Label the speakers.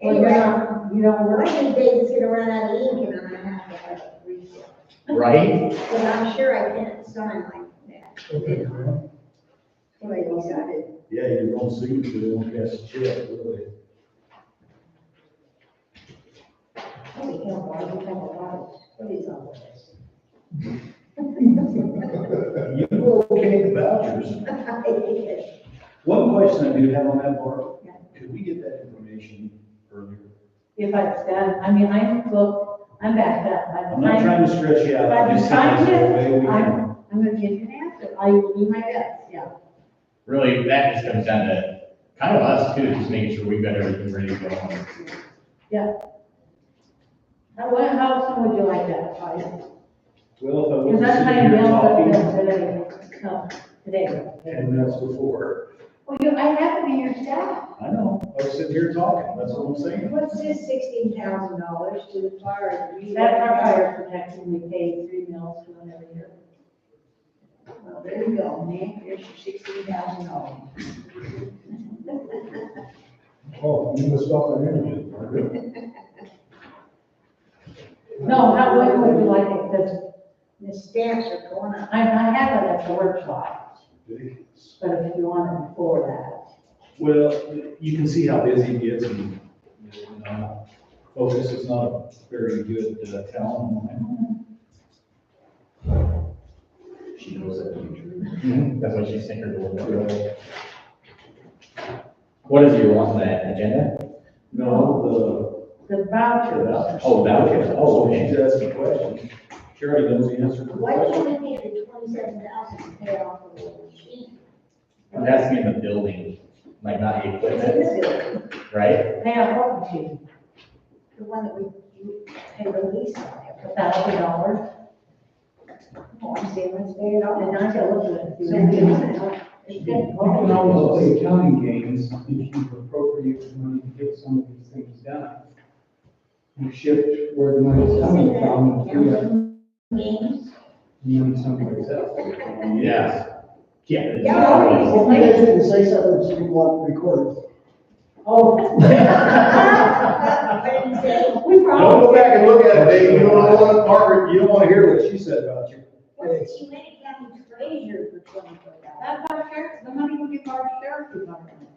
Speaker 1: And you're not, you don't work, and Dave's gonna run out of ink, and I'm gonna have to have it refill.
Speaker 2: right?
Speaker 1: But I'm sure I can't sign like that, the way we signed
Speaker 3: Yeah, you don't see it, you don't cash the check, really.
Speaker 1: Holy cow, why do we have a lot, what is all this?
Speaker 3: You were okay with vouchers.
Speaker 1: I
Speaker 3: One question I do have on that, Barb, could we get that information earlier?
Speaker 4: If I was done, I mean, I'm booked, I'm backed up.
Speaker 3: I'm not trying to stretch you out.
Speaker 4: By the
Speaker 3: I'm just saying
Speaker 4: time
Speaker 3: it's the way we can-
Speaker 4: I'm, I'm gonna give you an answer, I will do my best, yeah.
Speaker 2: Really, that just comes down to kind of us too, just making sure we've got everything ready to go on.
Speaker 4: How, what- how soon would you like that, Claudia?
Speaker 3: Well, if I
Speaker 4: Because
Speaker 3: wasn't
Speaker 4: that's my
Speaker 3: sitting here
Speaker 4: available
Speaker 3: talking
Speaker 4: today, no, today.
Speaker 3: ten minutes before,
Speaker 4: Well, you, I have to be your staff.
Speaker 3: I know, I was sitting here talking, that's what I'm
Speaker 1: guess.
Speaker 3: saying.
Speaker 1: What's this sixteen thousand dollars to the fire? and refill?
Speaker 4: That's our fire protection, we pay three mils for them every year.
Speaker 1: Well, there you go, man, there's your sixteen thousand dollars.
Speaker 3: Oh, you must stop that interview.
Speaker 4: No, how, when would you like it, because
Speaker 1: The stamps are going up.
Speaker 4: I, I have it at the workshop, but if you want it before that.
Speaker 3: Well, you can see how busy it gets and, you know, I'm not- focus is not a very good uh, talent of mine.
Speaker 2: She knows that. That's why she's thinking a little bit.
Speaker 3: Uh,
Speaker 2: What is your want on that agenda?
Speaker 3: No,
Speaker 4: The
Speaker 3: the, the
Speaker 4: voucher,
Speaker 3: vouchers.
Speaker 2: Oh, vouchers. Oh, okay.
Speaker 3: She's asking a question. She already knows the answer to the
Speaker 1: Why
Speaker 3: question.
Speaker 1: can't we get the twenty-seven thousand to pay off the machine?
Speaker 2: I'm asking in the building, like not the
Speaker 1: It's in
Speaker 2: equipment,
Speaker 1: the building,
Speaker 2: right?
Speaker 4: they have what machine?
Speaker 1: the one that we, you pay the lease on
Speaker 4: a
Speaker 1: every,
Speaker 4: thousand dollars,
Speaker 1: oh, I'm saying, let's pay it off.
Speaker 4: and I can look at
Speaker 1: So we
Speaker 4: it.
Speaker 1: can help. It's good.
Speaker 5: Well, You can always play accounting games if you appropriate the money to get some of these things done. You shift where the money's coming from, if you have
Speaker 1: Games.
Speaker 5: money someplace else.
Speaker 2: Yeah. Yeah.
Speaker 1: Yeah.
Speaker 6: Well, maybe I shouldn't say something, she can block the record.
Speaker 4: Oh,
Speaker 1: What did he say?
Speaker 4: we
Speaker 3: Don't
Speaker 4: probably,
Speaker 3: go back and look at it, Dave. You don't want, Margaret, you don't want to hear what she said about you.
Speaker 1: What's the Humane County treasure for twenty-four dollars?
Speaker 4: that's our sheriff, the money we give our sheriff department.